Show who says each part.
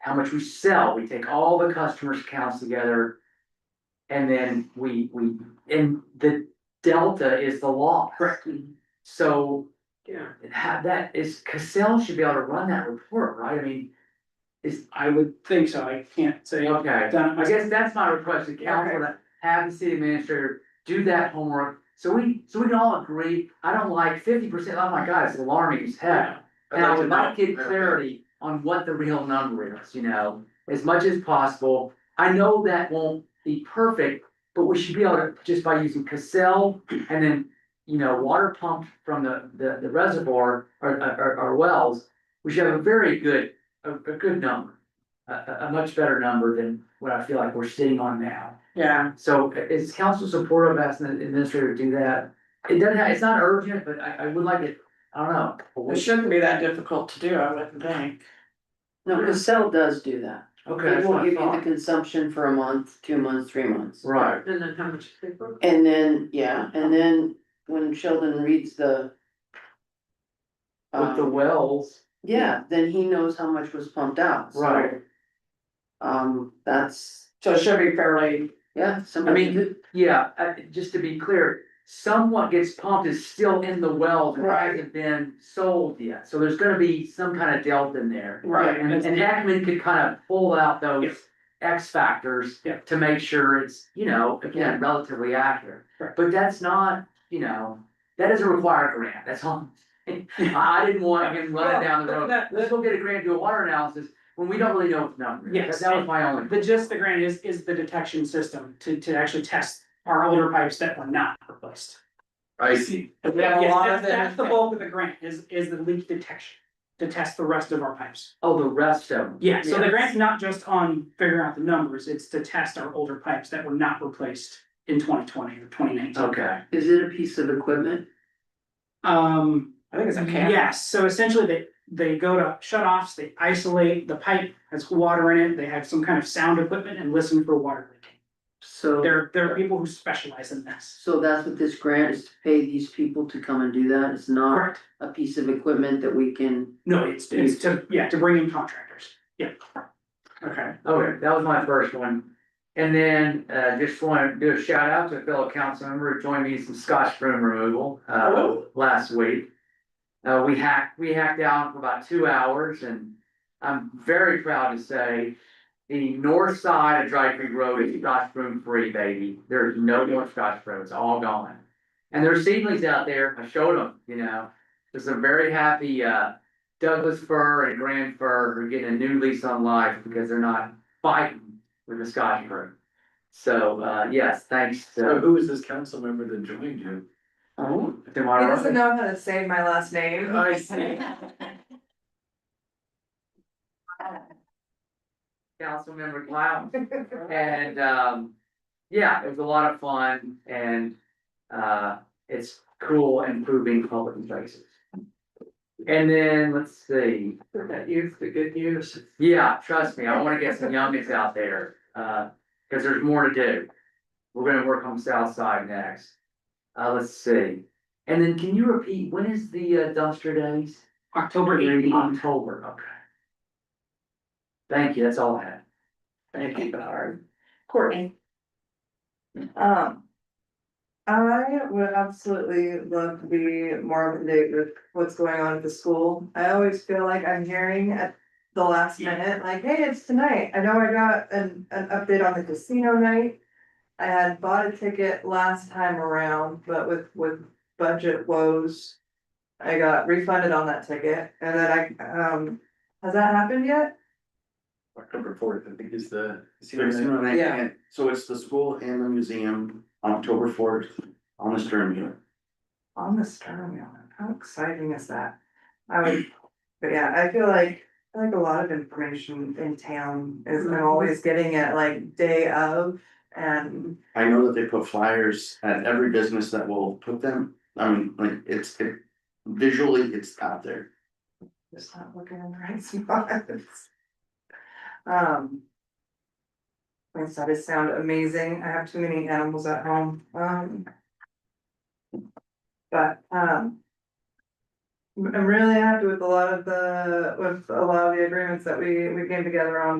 Speaker 1: how much we sell, we take all the customers' accounts together. And then we, we, and the delta is the law.
Speaker 2: Correct.
Speaker 1: So
Speaker 2: Yeah.
Speaker 1: have that is, Cassell should be able to run that report, right? I mean, is,
Speaker 2: I would think so, I can't say. I've
Speaker 1: okay,
Speaker 2: done it
Speaker 1: I
Speaker 2: myself.
Speaker 1: guess that's my request to council, to have the city administrator do that homework. So we, so we can all agree, I don't like fifty percent, oh my god, it's alarming as heck. And I would like to get Um, clarity on what the real number is, you know, as much as possible. I know that won't be perfect, but we should be able to, just by using Cassell and then, you know, water pumped from the, the, the reservoir or, or, or wells, we should have a very good, a, a good number. A, a, a much better number than what I feel like we're sitting on now.
Speaker 2: Yeah,
Speaker 1: So i- is council supportive of asking the administrator to do that? It doesn't, it's not urgent, but I, I would like it, I don't know. a
Speaker 2: it
Speaker 1: week.
Speaker 2: shouldn't be that difficult to do, I wouldn't think.
Speaker 3: No, Cassell does do that.
Speaker 1: Okay.
Speaker 3: It
Speaker 1: that's what
Speaker 3: will
Speaker 1: I
Speaker 3: give you the
Speaker 1: thought.
Speaker 3: consumption for a month, two months, three months.
Speaker 1: Right,
Speaker 4: And then how much paper?
Speaker 3: And then, yeah, and then when Sheldon reads the.
Speaker 1: with the
Speaker 3: um,
Speaker 1: wells,
Speaker 3: yeah, then he knows how much was pumped out, so,
Speaker 1: right,
Speaker 3: Um, that's,
Speaker 2: So it should be fairly,
Speaker 3: yeah,
Speaker 1: I
Speaker 3: somebody.
Speaker 1: mean, yeah, uh, just to be clear, somewhat gets pumped is still in the wells and
Speaker 2: Right.
Speaker 1: hasn't been sold yet, so there's gonna be some kind of delta in there.
Speaker 2: right,
Speaker 1: And
Speaker 2: and
Speaker 1: and Ackman could kind of pull out those X factors
Speaker 2: Yeah.
Speaker 1: to make sure it's, you know, again, relatively accurate.
Speaker 2: Right.
Speaker 1: But that's not, you know, that doesn't require a grant, that's all. I I didn't want him running down the road,
Speaker 2: That- that-
Speaker 1: let's go get a grant, do a water analysis, when we don't really know what the number is. That-
Speaker 2: Yes.
Speaker 1: That was my only.
Speaker 2: the gist of the grant is, is the detection system to, to actually test our older pipes that were not replaced.
Speaker 5: I see.
Speaker 2: Yes,
Speaker 1: we have a lot of
Speaker 2: that's,
Speaker 1: them.
Speaker 2: that's the bulk of the grant, is, is the leak detection, to test the rest of our pipes.
Speaker 1: Oh, the rest of them.
Speaker 2: Yeah, so the
Speaker 1: Yeah.
Speaker 2: grant's not just on figuring out the numbers, it's to test our older pipes that were not replaced in twenty twenty or twenty nineteen.
Speaker 1: Okay,
Speaker 3: Is it a piece of equipment?
Speaker 2: Um,
Speaker 4: I think it's
Speaker 2: yes, so essentially they, they go to shut offs, they isolate the pipe, has water in it, they have some kind of sound equipment and listen for water leaking.
Speaker 3: So,
Speaker 2: There, there are people who specialize in this.
Speaker 3: so that's what this grant is to pay these people to come and do that, it's not
Speaker 2: Correct.
Speaker 3: a piece of equipment that we can.
Speaker 2: No, it's, it's to, yeah, to bring in contractors, yeah. Okay.
Speaker 1: okay, that was my first one. And then, uh, just wanna do a shout out to a fellow council member who joined me in some scotch broom removal, uh,
Speaker 2: Oh.
Speaker 1: last week. Uh, we hacked, we hacked down for about two hours and I'm very proud to say the north side of Dry Creek Road is scotch broom free, baby. There's no more scotch broom, it's all gone. And there's seedlings out there, I showed them, you know, there's a very happy, uh, Douglas fir and grand fir are getting a new lease on life because they're not fighting with the Scotch broom. So, uh, yes, thanks
Speaker 5: So
Speaker 1: to.
Speaker 5: who is this council member that joined you?
Speaker 3: Oh.
Speaker 1: to
Speaker 4: He
Speaker 1: my-
Speaker 4: doesn't know how to say my last name.
Speaker 1: I see. Councilmember Cloud. And, um, yeah, it was a lot of fun and, uh, it's cool improving public places. And then, let's see,
Speaker 4: That youth, the good news.
Speaker 1: yeah, trust me, I wanna get some youngins out there, uh, cause there's more to do. We're gonna work on South Side next. Uh, let's see, and then can you repeat, when is the uh, dumpster days?
Speaker 2: October eighteenth.
Speaker 1: October, okay. Thank you, that's all I had.
Speaker 4: Thank you, Howard. Courtney. Um. I would absolutely love to be more up to date with what's going on at the school. I always feel like I'm hearing at the last minute, like, hey, it's tonight. I know I got an, an update on the casino night. I had bought a ticket last time around, but with, with budget woes. I got refunded on that ticket and then I, um, has that happened yet?
Speaker 5: October fourth, I think is the.
Speaker 6: Casino night,
Speaker 4: Yeah.
Speaker 6: and so it's the school and the museum on October fourth on the Stern Muir.
Speaker 4: on the Stern Wheel. How exciting is that? I would, but yeah, I feel like, I feel like a lot of information in town is I'm always getting it like day of and.
Speaker 6: I know that they put flyers at every business that will put them, I mean, like, it's, it, visually, it's out there.
Speaker 4: Just not looking in the right spots. Um. My studies sound amazing. I have too many animals at home, um. But, um. I'm really happy with a lot of the, with a lot of the agreements that we, we came together on